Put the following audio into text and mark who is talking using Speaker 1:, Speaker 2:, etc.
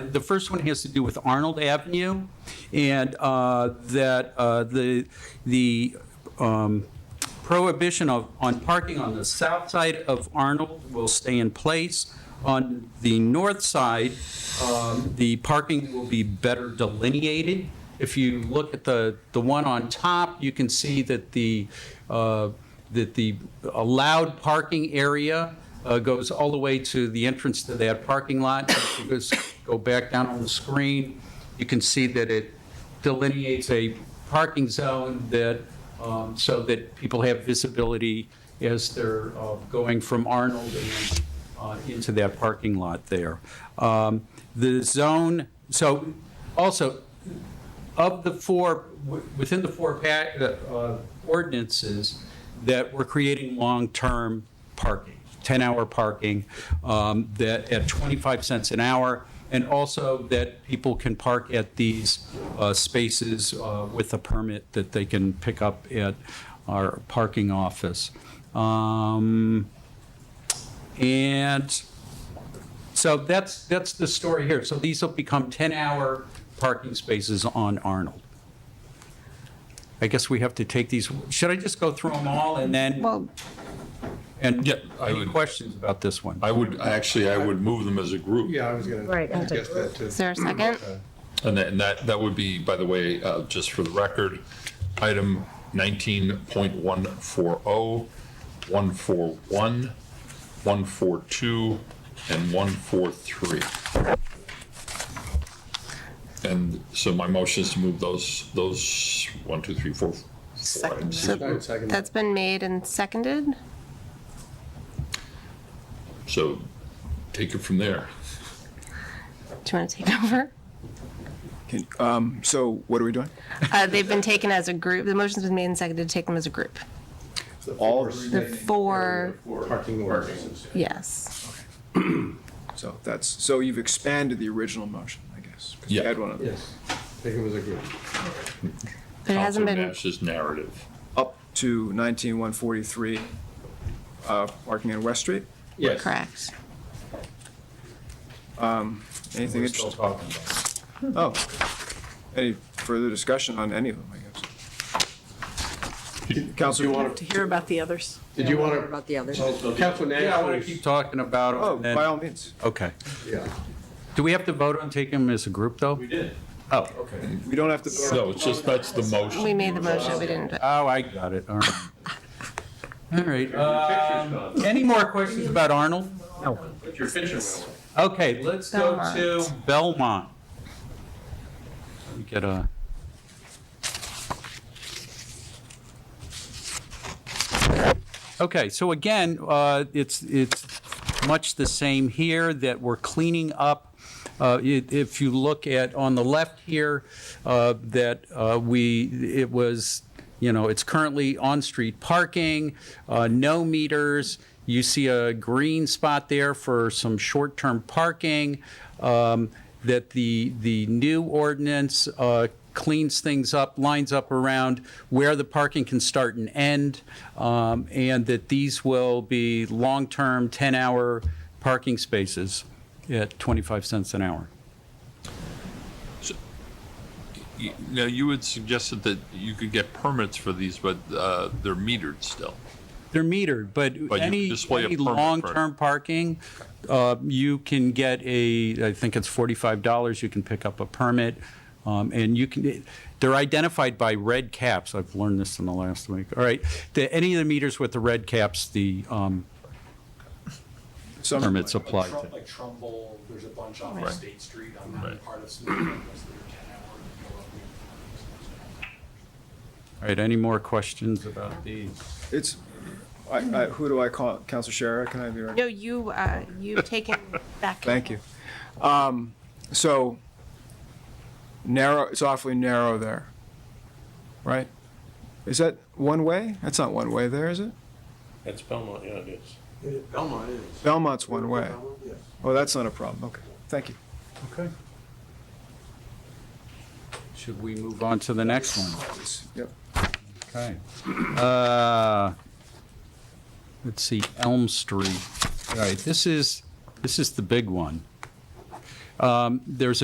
Speaker 1: the first one has to do with Arnold Avenue, and uh, that uh, the, the um, prohibition of, on parking on the south side of Arnold will stay in place. On the north side, um, the parking will be better delineated. If you look at the, the one on top, you can see that the, uh, that the allowed parking area uh, goes all the way to the entrance to that parking lot. If you just Go back down on the screen, you can see that it delineates a parking zone that, um, so that people have visibility as they're uh, going from Arnold and uh, into that parking lot there. Um, The zone, so also, of the four, w- within the four pa- uh, ordinances that we're creating long-term parking, 10-hour parking, um, that at 25 cents an hour, and also that people can park at these uh, spaces uh, with a permit that they can pick up at our parking office. Um, And so that's, that's the story here. So these will become 10-hour parking spaces on Arnold. I guess we have to take these, should I just go through them all and then,
Speaker 2: Well,
Speaker 1: and
Speaker 3: Yeah, I
Speaker 1: any
Speaker 3: would-
Speaker 1: questions about this one?
Speaker 3: I would, actually, I would move them as a group.
Speaker 4: Yeah, I was gonna
Speaker 2: Right.
Speaker 4: suggest that too.
Speaker 2: is there a
Speaker 5: Uh,
Speaker 2: second?
Speaker 3: And that, and that, that would be, by the way, uh, just for the record, item 19.140, 141, 142, and 143. And so my motion is to move those, those, one, two, three, four, four
Speaker 2: Second.
Speaker 3: items.
Speaker 2: So
Speaker 4: Second, second.
Speaker 2: That's been made and seconded.
Speaker 3: So take it from there.
Speaker 2: Do you want to take over?
Speaker 5: So what are we doing?
Speaker 2: Uh, They've been taken as a group, the motion's been made and seconded to take them as a group.
Speaker 5: All,
Speaker 2: The four,
Speaker 4: Parking ordinances.
Speaker 2: yes.
Speaker 5: so that's, so you've expanded the original motion, I guess. 'cause we
Speaker 3: Yeah.
Speaker 5: had one other.
Speaker 4: Yes, take them as a group.
Speaker 2: But it hasn't
Speaker 3: Counselor
Speaker 2: been,
Speaker 3: Nash's narrative.
Speaker 5: Up to 19143, uh, parking on West Street.
Speaker 4: Yes.
Speaker 2: correct.
Speaker 5: Anything
Speaker 4: We're still
Speaker 5: interesting?
Speaker 4: talking about it.
Speaker 5: Oh, any further discussion on any of them, I guess?
Speaker 4: Do you
Speaker 5: Counselor,
Speaker 4: want to,
Speaker 6: to hear about the others.
Speaker 4: did you want
Speaker 6: About the others.
Speaker 4: to? Council Nash?
Speaker 1: Yeah, I want to keep talking about
Speaker 5: oh,
Speaker 1: them. and
Speaker 5: by all
Speaker 1: then-
Speaker 5: means,
Speaker 1: Okay.
Speaker 4: Yeah.
Speaker 1: Do we have to vote on taking them as a group, though? We did. Oh, okay.
Speaker 5: we don't have to vote.
Speaker 3: No, it's just, that's the motion.
Speaker 2: We made the motion, we didn't,
Speaker 1: Oh, I got it, all right. All right. um, Any more questions about Arnold? No. Okay, let's go to Belmont. Let me Get a. Okay, so again, uh, it's, it's much the same here, that we're cleaning up. Uh, it- If you look at, on the left here, uh, that uh, we, it was, you know, it's currently on-street parking, uh, no meters. You see a green spot there for some short-term parking. um, That the, the new ordinance uh, cleans things up, lines up around where the parking can start and end, um, and that these will be long-term, 10-hour parking spaces at 25 cents an hour.
Speaker 3: You- Now, you had suggested that you could get permits for these, but uh, they're metered still.
Speaker 1: They're metered, but
Speaker 3: But you
Speaker 1: any,
Speaker 3: display a
Speaker 1: any
Speaker 3: permit for it.
Speaker 1: long-term parking, uh, you can get a, I think it's $45, you can pick up a permit, um, and you can, they're identified by red caps, I've learned this in the last week, all right? The- Any of the meters with the red caps, the um,
Speaker 5: Some-
Speaker 1: permits apply to.
Speaker 7: Like Trumbull, there's a bunch off of
Speaker 3: Right.
Speaker 7: State Street on that
Speaker 3: Right.
Speaker 7: part of Smith, that are 10 hour.
Speaker 1: All right, any more questions about these?
Speaker 5: It's, I, I, who do I call? Counselor Shara, can I be right?
Speaker 2: no, you, uh, you've taken back.
Speaker 5: Thank you. Um, So narrow, it's awfully narrow there, right? Is that one way? That's not one way there, is it?
Speaker 8: That's Belmont, yeah, it is.
Speaker 4: Belmont is.
Speaker 5: Belmont's one way.
Speaker 4: Yes.
Speaker 5: Oh, that's not a problem. Okay, thank you.
Speaker 1: Okay. Should we move on to the next one?
Speaker 5: Yep.
Speaker 1: Okay. Uh, Let's see, Elm Street. All right, this is, this is the big one. Um, There's